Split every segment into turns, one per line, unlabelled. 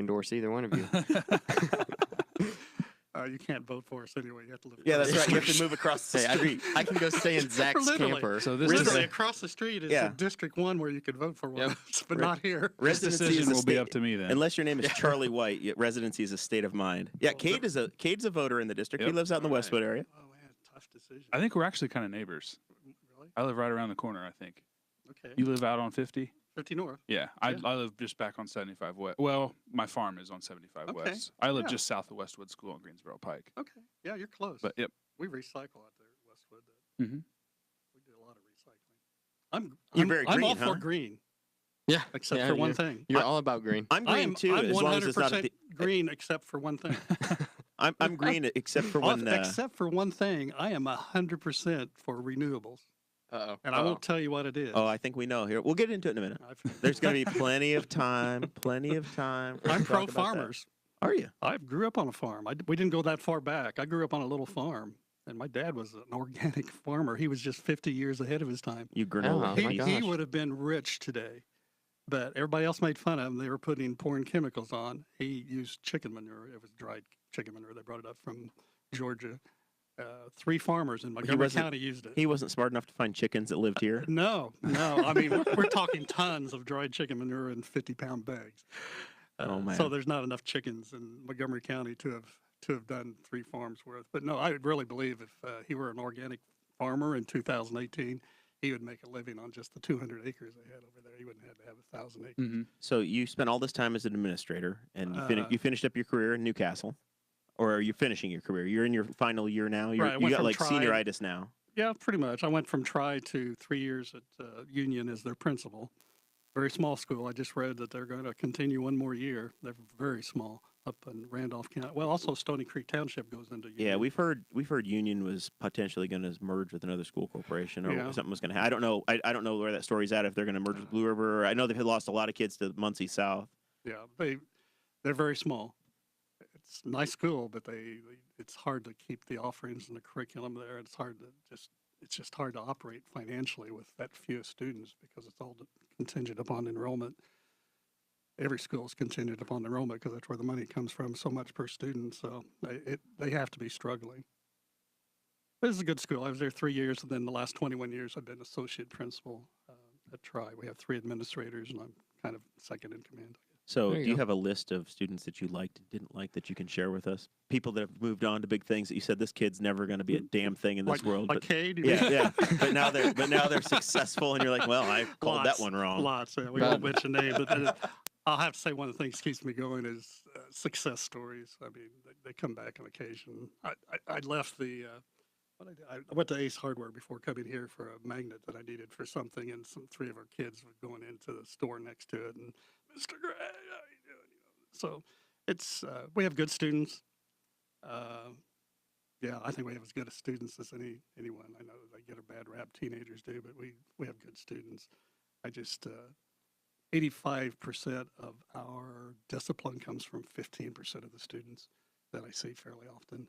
endorse either one of you.
Uh, you can't vote for us anyway. You have to live.
Yeah, that's
across
right.
the
You have to
street.
move across the
Hey, I,
street.
I can go stay in Zach's
Literally.
camper.
So this
Really?
is
Literally
a-
across the street is
Yeah.
the District One where you could vote for one,
Yep.
of us, but
Right.
not here.
this decision will be up to me then.
Unless your name is Charlie White, yet residency is a state of mind. Yeah, Cade is a Cade's a voter in the district. He
Yep.
lives out in the
All right.
Westwood area.
Oh man, tough decision.
I think we're actually kind of neighbors.
really
I live right around the corner. I think
okay.
you live out on fifty.
Fifty North.
Yeah, I,
Yeah.
I live just back on seventy five west. Well, my farm is on seventy five
Okay,
west. I live
yeah.
just south of Westwood School on Greensboro Pike.
Okay. Yeah, you're close.
But yep,
we recycle out there at Westwood. Uh,
Mhm.
We did a lot of recycling. I'm.
Mm-hmm. You're
I'm,
very
I'm all
green, huh?
for green,
yeah,
except
yeah,
for one
you're-
thing.
You're all about green.
I'm green
I'm,
too,
I'm
as long as it's not.
100%
At the,
green, except for one thing.
I'm I'm green except for
Off-
when. Uh,
except for one thing, I am hundred percent for renewables,
Uh-oh.
and I won't tell you what it is.
oh, I think we know here. We'll get into it in a minute.
I've-
There's going to be plenty of time. Plenty of time. for us
I'm
to talk
pro
about that.
farmers.
Are you?
I grew up on a farm. I d we didn't go that far back. I grew up on a little farm, and my dad was an organic farmer. He was just 50 years ahead of his time.
You granola.
Oh
he,
my
he
gosh.
would have been rich today, but everybody else made fun of him. They were putting pouring chemicals on. He used chicken manure. It was dried chicken manure. They brought it up from Georgia. Uh, three farmers in Montgomery
wasn't-
County used it.
He wasn't smart enough to find chickens that lived here.
No, no. I mean, we're, we're talking tons of dried chicken manure in fifty-pound bags. Uh,
Oh,
So
man.
there's not enough chickens in Montgomery County to have to have done three farms worth. But no, I really believe if uh, he were an organic farmer in 2018, he would make a living on just the 200 acres they had over there. He wouldn't have to have a thousand acres.
Mhm.
So you spent all this time as an administrator, and you, fin-
Uh,
you finished up your career in Newcastle, or are you finishing your career? You're in your final year now. You're,
Right, I
you
went
got
from
like
tri-
senioritis now.
Yeah, pretty much. I went from Tri to three years at uh, Union as their principal. Very small school. I just read that they're going to continue one more year. They're very small up in Randolph County. Well, also Stony Creek Township goes into Union.
Yeah, we've heard we've heard Union was potentially going to merge with another school corporation, or
Yeah. Uh.
something was going to. I don't know. I, I don't know where that story's at. If they're going to merge with Blue River, or I know they've had lost a lot of kids to Muncie South.
Yeah, they they're very small. It's a nice school, but they it's hard to keep the offerings and the curriculum there. It's hard to just it's just hard to operate financially with that few students because it's all contingent upon enrollment. Every school is contingent upon enrollment because that's where the money comes from. So much per student, so they it, they have to be struggling. This is a good school. I was there three years, and then the last 21 years I've been associate principal uh, at Tri. We have three administrators, and I'm kind of second in command.
So,
There
do
you
you
go.
have a list of students that you liked and didn't like that you can share with us? People that have moved on to big things that you said this kid's never going to be a damn thing in this
Mm, like,
world.
Like
but,
Cade, you
yeah,
mean?
yeah. But now they're but now they're successful, and you're like, well, I called
Lots,
that one wrong.
Lots. Yeah, we
Bad.
won't mention names, but uh, I'll have to say one of the things that keeps me going is uh, success stories. I mean, they, they come back on occasion. I, I, I left the. Uh, what I, did- I- I went to Ace Hardware before coming here for a magnet that I needed for something, and some three of our kids were going into the store next to it, and Mr. Gray, how you doing? You know, so it's uh, we have good students. Uh, yeah, I think we have as good a students as any anyone. I know they get a bad rap, teenagers do, but we we have good students. I just uh, eighty-five percent of our discipline comes from fifteen percent of the students that I see fairly often.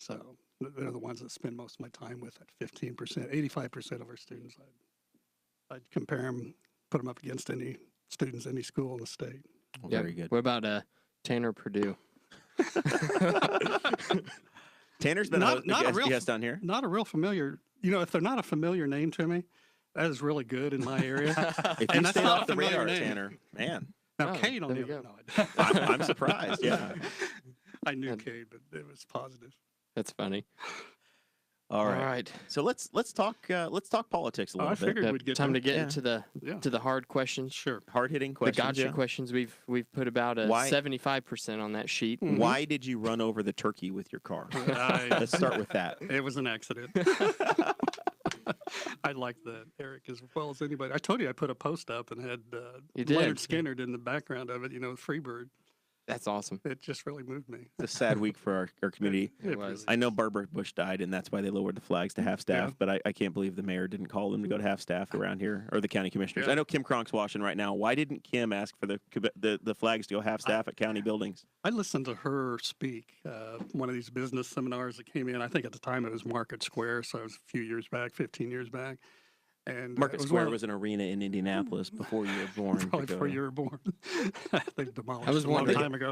So th- they're the ones that spend most of my time with at fifteen percent. Eighty-five percent of our students, I'd, I'd compare them, put them up against any students any school in the state.
Well,
Yeah.
Very good.
What about uh, Tanner Purdue?
Tanner's been
Not-
a, host- a
not a
guest,
real-
guest on here.
Not a real familiar, you know, if they're not a familiar name to me, that is really good in my area.
If
And
you
that's
stay
not
off
a
the
familiar
radar,
name.
Tanner, man,
now,
Oh,
Cade on
there
the
you
other,
go.
no, I don't.
I'm, I'm surprised. Yeah.
I knew
And-
Cade, but it was positive.
That's funny.
All
All
right.
right.
So let's let's talk uh, let's talk politics a
Oh,
little
I
bit.
figured
Yep,
we'd get
Time
there.
to get
Yeah.
into the
Yeah.
to the hard questions.
Sure.
Hard hitting questions.
the gotcha
yeah.
questions we've we've put about a
Why-
seventy five percent on that sheet.
Mhm.
Why did you run over the turkey with your car?
I,
let's start with that.
it was an accident. I like that, Eric, as well as anybody. I told you I put a post up and had uh,
You
Leonard
did.
Skinner in the background of it, you know, Freebird.
That's awesome.
It just really moved me.
It's a sad week for our, our community.
It was.
I know Barbara Bush died, and that's why they lowered the flags to half staff.
Yeah.
But I, I can't believe the mayor didn't call them to go to half staff around here, or the county commissioners.
Yeah.
I know Kim Cronk's watching right now. Why didn't Kim ask for the the, the flags to go half staff at county buildings?
I listened to her speak uh, one of these business seminars that came in. I think at the time it was Market Square, so it was a few years back, 15 years back. And uh,
Market
it was one
Square
of-
was an arena in Indianapolis before you were born. to
Probably
go
before
to.
you were born. They've demolished
was
it a long
wondering-
time ago.